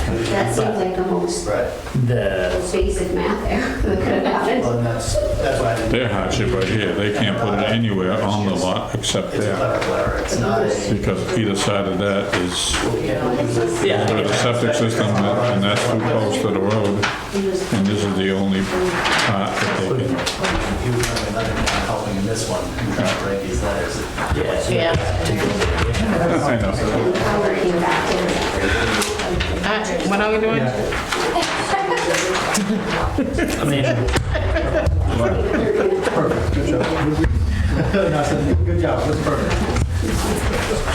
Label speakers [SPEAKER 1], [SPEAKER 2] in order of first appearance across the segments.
[SPEAKER 1] seems like the most,
[SPEAKER 2] Right.
[SPEAKER 3] The,
[SPEAKER 1] most basic math there that could have happened.
[SPEAKER 2] Well, and that's, that's why I didn't.
[SPEAKER 4] Their hardship right here, they can't put it anywhere on the lot except
[SPEAKER 2] It's a
[SPEAKER 4] there,
[SPEAKER 2] clever letter. It's not a.
[SPEAKER 4] because either side of that is,
[SPEAKER 3] yeah, I
[SPEAKER 4] put
[SPEAKER 3] think
[SPEAKER 4] a septic system, and that's too close to the road,
[SPEAKER 1] It was-
[SPEAKER 4] and this is the only part that they can.
[SPEAKER 2] He was having another town helping in this one, uh, trying to write these letters.
[SPEAKER 4] I know.
[SPEAKER 1] and how we're getting back there.
[SPEAKER 5] Alright, What are we doing?
[SPEAKER 3] I mean,
[SPEAKER 2] Perfect, good job. No, so, Good job, that's perfect.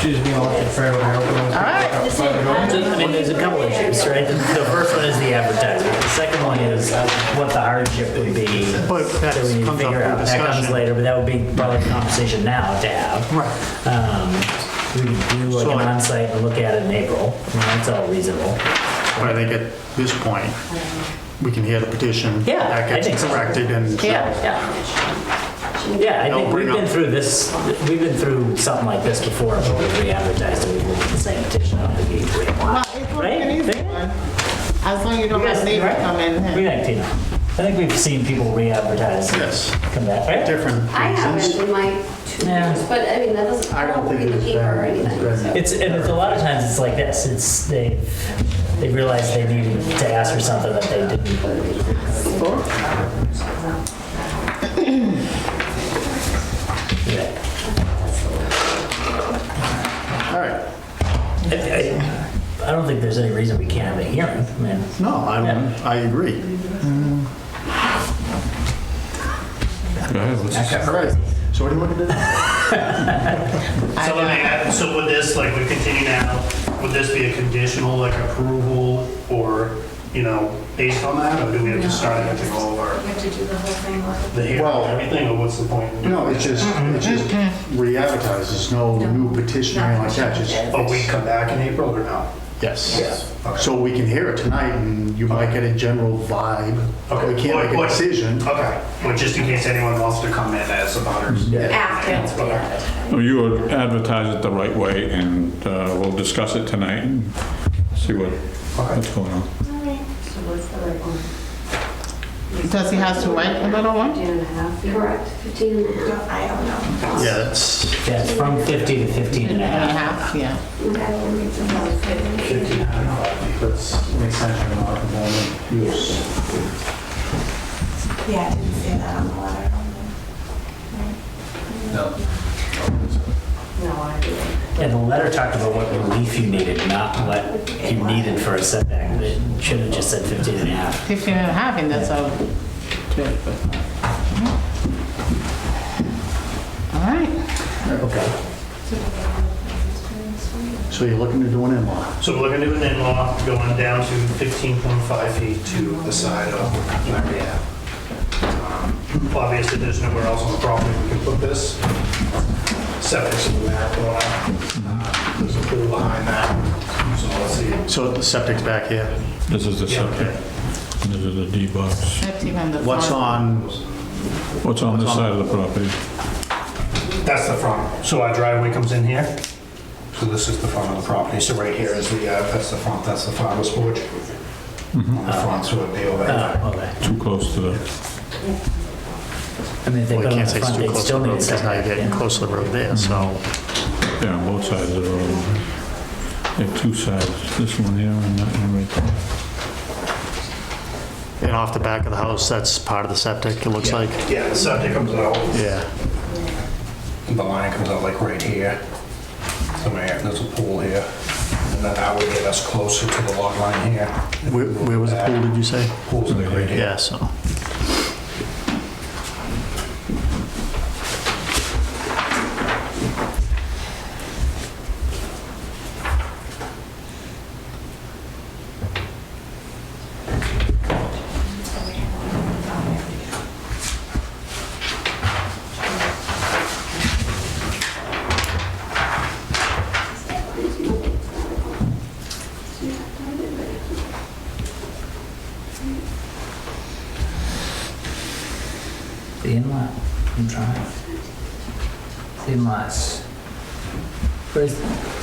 [SPEAKER 2] She's being all in favor of
[SPEAKER 5] All
[SPEAKER 2] her.
[SPEAKER 5] right.
[SPEAKER 3] I mean, there's a couple issues, right? The the first one is the advertisement. The second one is what the hardship would be.
[SPEAKER 6] But that
[SPEAKER 3] So we need
[SPEAKER 6] comes
[SPEAKER 3] to
[SPEAKER 6] up for
[SPEAKER 3] figure out, that comes
[SPEAKER 6] discussion.
[SPEAKER 3] later, but that would be probably a conversation now to have.
[SPEAKER 6] Right.
[SPEAKER 3] Um, We can do like
[SPEAKER 6] So-
[SPEAKER 3] an onsite and look at it in April, I mean, that's all reasonable.
[SPEAKER 6] But I think at this point, we can hear the petition.
[SPEAKER 3] Yeah,
[SPEAKER 6] That
[SPEAKER 3] I think
[SPEAKER 6] gets
[SPEAKER 3] so.
[SPEAKER 6] corrected and.
[SPEAKER 3] Yeah, yeah. Yeah, I
[SPEAKER 6] Don't
[SPEAKER 3] think we've
[SPEAKER 6] bring up-
[SPEAKER 3] been through this, we've been through something like this before, but we re-advertised and we looked at the same petition on the gateway.
[SPEAKER 5] Well, it's gonna be an
[SPEAKER 3] Right?
[SPEAKER 5] easy one. As long as you don't have
[SPEAKER 3] Yes,
[SPEAKER 5] neighbors
[SPEAKER 3] right.
[SPEAKER 5] come in.
[SPEAKER 3] We
[SPEAKER 5] and-
[SPEAKER 3] like Tina. I think we've seen people re-advertise. and
[SPEAKER 6] Yes.
[SPEAKER 3] Come back, right?
[SPEAKER 6] Different
[SPEAKER 1] I haven't
[SPEAKER 6] reasons.
[SPEAKER 1] in my two
[SPEAKER 3] Yeah.
[SPEAKER 1] years, but I mean, that doesn't, I don't think it's paper or anything. so.
[SPEAKER 3] It's, and it's a lot of times it's like this, it's, they, they realize they needed to ask for something that they didn't. Yeah.
[SPEAKER 6] All right.
[SPEAKER 3] I- I I don't think there's any reason we can't have a hearing, I mean,
[SPEAKER 6] No, I,
[SPEAKER 3] Yeah.
[SPEAKER 6] I agree.
[SPEAKER 4] Go ahead, let's-
[SPEAKER 6] All right. So what do you want to do?
[SPEAKER 7] So let me add, so would this, like, we continue now, would this be a conditional, like, approval or, you know, based on that? Or do we have to start at the all of our,
[SPEAKER 8] have to do the whole thing like
[SPEAKER 7] the hearing
[SPEAKER 6] Well-
[SPEAKER 7] and everything, or what's the point?
[SPEAKER 6] No, it's just, it's just re-advertised. There's no new petition or anything like that. Just,
[SPEAKER 7] But we come back in April or no?
[SPEAKER 6] yes. So we can hear it tonight and you might get a general vibe. but We
[SPEAKER 7] Okay.
[SPEAKER 6] can't make a
[SPEAKER 7] What- what-
[SPEAKER 6] decision.
[SPEAKER 7] Okay, well, just in case anyone wants to come in as a butters.
[SPEAKER 1] After, yeah.
[SPEAKER 4] Well, You would advertise it the right way, and uh, we'll discuss it tonight and see what, what's going on.
[SPEAKER 1] So what's the right one?
[SPEAKER 5] Does he have to wait a little one?
[SPEAKER 1] 15 and a half, correct, 15 and a half.
[SPEAKER 8] I don't know.
[SPEAKER 6] Yeah, that's,
[SPEAKER 3] yeah, it's from 50 to 15 and a
[SPEAKER 5] And a
[SPEAKER 3] half.
[SPEAKER 5] half, yeah.
[SPEAKER 1] Okay, we'll make some notes.
[SPEAKER 2] Fifteen hundred, that's an extension of non-conforming use.
[SPEAKER 8] Yeah, I didn't say that on the letter.
[SPEAKER 2] No.
[SPEAKER 1] No, I didn't.
[SPEAKER 3] And the letter talked about what relief you needed, not what you needed for a setback. It should have just said 15 and a half.
[SPEAKER 5] Fifteen and a half, and that's all. All right,
[SPEAKER 6] so you're looking to do an in-law.
[SPEAKER 7] So we're looking to do an in-law, going down to 15.5 feet to the side of Larry Ave. Um, Obviously, there's nowhere else on the property we can put this. Septic's in the back corner. Uh, There's a pool behind that, so let's see.
[SPEAKER 6] So the septic's back here.
[SPEAKER 4] This is the
[SPEAKER 7] Yeah,
[SPEAKER 4] septic,
[SPEAKER 7] okay.
[SPEAKER 4] this is the D box.
[SPEAKER 5] that's even the.
[SPEAKER 6] What's
[SPEAKER 5] front.
[SPEAKER 6] on,
[SPEAKER 4] What's on this
[SPEAKER 6] What's on-
[SPEAKER 4] side of the property?
[SPEAKER 7] That's the front. So our driveway comes in here. So this is the front of the property. So right here is the, uh, that's the front, that's the farmer's porch.
[SPEAKER 6] Mm-hmm.
[SPEAKER 7] On the front, so it'd be
[SPEAKER 2] Uh,
[SPEAKER 7] over there.
[SPEAKER 3] Oh, okay.
[SPEAKER 4] Too close to the,
[SPEAKER 3] I mean, if they go on
[SPEAKER 6] well, you
[SPEAKER 3] the
[SPEAKER 6] can't say it's
[SPEAKER 3] front,
[SPEAKER 6] too
[SPEAKER 3] they
[SPEAKER 6] close to
[SPEAKER 3] still
[SPEAKER 6] the road
[SPEAKER 3] need a
[SPEAKER 6] because now you're
[SPEAKER 3] setback.
[SPEAKER 6] getting
[SPEAKER 3] yeah.
[SPEAKER 6] close to the road there, so.
[SPEAKER 4] yeah, on both sides of the road. They have two sides, this one here and that one right there.
[SPEAKER 6] And off the back of the house, that's part of the septic, it looks like.
[SPEAKER 7] Yeah, the septic comes out.
[SPEAKER 6] Yeah.
[SPEAKER 7] The line comes out like right here. So man, there's a pool here. And then that would get us closer to the log line here. Uh,
[SPEAKER 6] Where where was the pool, did you say?
[SPEAKER 7] Pool's right here.
[SPEAKER 6] Yeah, so.
[SPEAKER 3] The inlet, I'm trying. The inlets. Where's,